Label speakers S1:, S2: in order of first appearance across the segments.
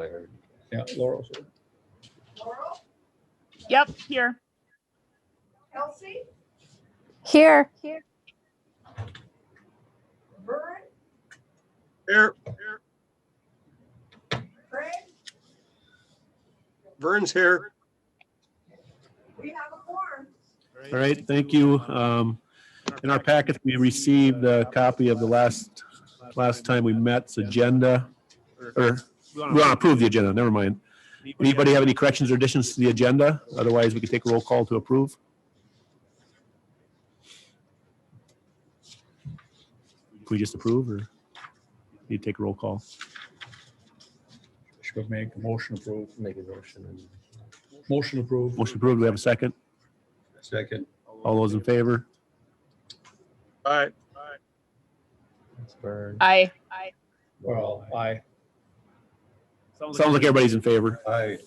S1: heard.
S2: Yeah, Laurel's here.
S3: Laurel,
S4: Yep, here.
S3: Kelsey,
S5: Here.
S3: Vern,
S6: Here,
S3: Craig,
S6: Vern's here.
S3: we have a form.
S7: All right, thank you. Um, In our packet, we received a copy of the last, last time we met's agenda, or, we want to approve the agenda, never mind. Anybody have any corrections or additions to the agenda? Otherwise, we can take a roll call to approve. Can we just approve, or you take a roll call?
S2: Should make a motion approve.
S1: Make a motion and
S2: Motion approved.
S7: Motion approved, we have a second.
S2: Second.
S7: All those in favor?
S6: All right,
S1: it's Vern.
S4: I.
S2: Well, aye.
S7: Sounds like everybody's in favor.
S2: Aye.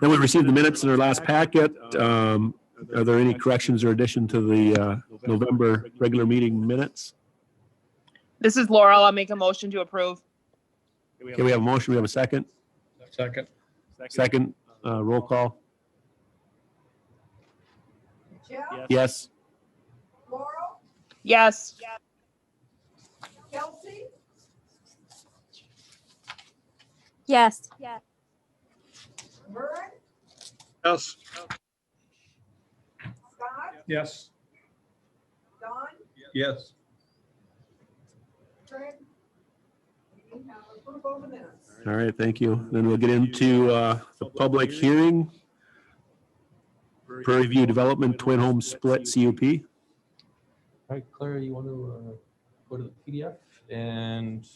S7: Then we received the minutes in our last packet. Um, Are there any corrections or addition to the uh, November regular meeting minutes?
S4: This is Laurel. I'll make a motion to approve.
S7: Okay, we have a motion, we have a second.
S2: Second.
S7: Second, uh, roll call.
S3: Jeff,
S7: Yes,
S3: Laurel,
S4: Yes.
S3: Kelsey,
S5: Yes.
S3: Vern,
S6: yes,
S3: Scott,
S2: Yes.
S3: Don,
S2: Yes.
S3: Craig. We have approval of the minutes.
S7: all right, thank you. Then we'll get into uh, the public hearing. Prairie View Development Twin Home Split CUP.
S1: All right, Clara, you want to uh, go to the PDF and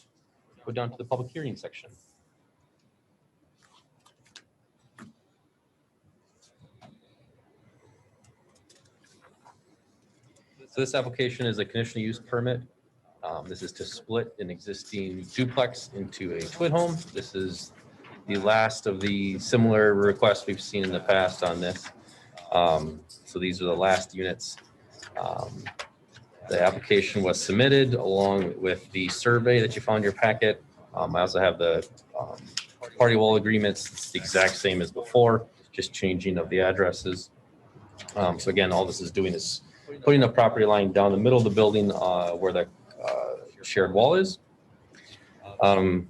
S1: go down to the public hearing section? So this application is a conditional use permit. Um, This is to split an existing duplex into a twin home. This is the last of the similar requests we've seen in the past on this. Um, So these are the last units. Um, the application was submitted along with the survey that you found in your packet. Um, I also have the, um, party wall agreements, it's the exact same as before, just changing of the addresses. Um, so again, all this is doing is putting a property line down the middle of the building, uh, where the, uh, shared wall is. Um,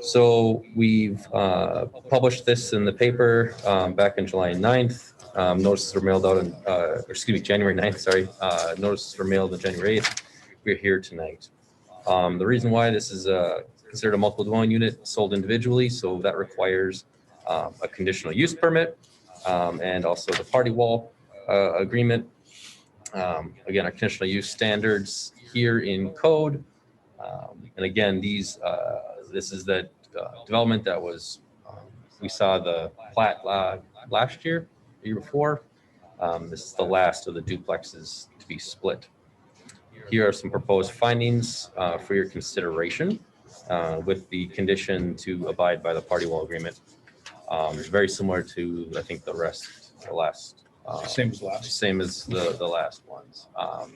S1: so we've, uh, published this in the paper, um, back in July 9th. Um, notices were mailed out on, uh, or excuse me, January 9th, sorry. Uh, notices were mailed on January 8th. We're here tonight. Um, the reason why this is, uh, considered a multiple dwelling unit sold individually, so that requires, um, a conditional use permit, um, and also the party wall, uh, agreement. Um, again, our conditional use standards here in code. Um, and again, these, uh, this is the, uh, development that was, um, we saw the plat, la last year the year before. Um, This is the last of the duplexes to be split. Here are some proposed findings uh, for your consideration uh, with the condition to abide by the party wall agreement. Um, Very similar to, I think, the rest, the last. uh,
S2: Same as last.
S1: same as the, the last ones. Um,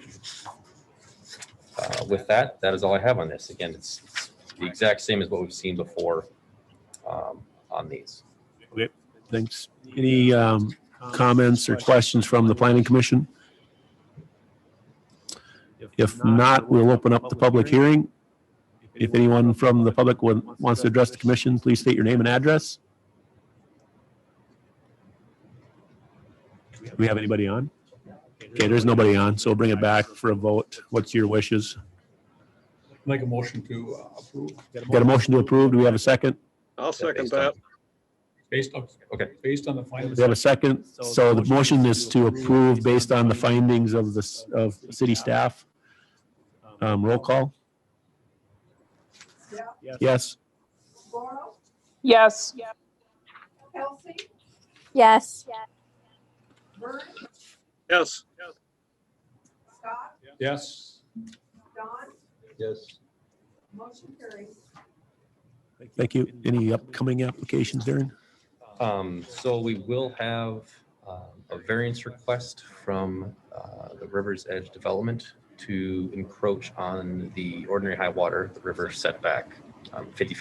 S1: uh, With that, that is all I have on this. Again, it's it's the exact same as what we've seen before um, on these.
S7: Thanks. Any um, comments or questions from the planning commission? If not, we'll open up the public hearing. If anyone from the public would- wants to address the commission, please state your name and address. Do we have anybody on? Okay, there's nobody on, so bring it back for a vote. What's your wishes?
S2: Make a motion to uh, approve
S7: Got a motion to approve? Do we have a second?
S6: I'll second that.
S2: based on.
S1: Okay.
S2: Based on the final.
S7: We have a second. So the motion is to approve based on the findings of the, s- of city staff. Um, roll call?
S3: Jeff,
S7: Yes.
S3: Laurel,
S4: Yes.
S3: Kelsey,
S5: Yes.
S3: Vern,
S6: Yes,
S3: Scott,
S2: Yes.
S3: Don,
S1: Yes.
S3: motion carries.
S7: Thank you. Any upcoming applications, Darren?
S1: Um, so we will have, um, a variance request from, uh, the River's Edge Development to encroach on the ordinary high water, the river setback, um, fifty feet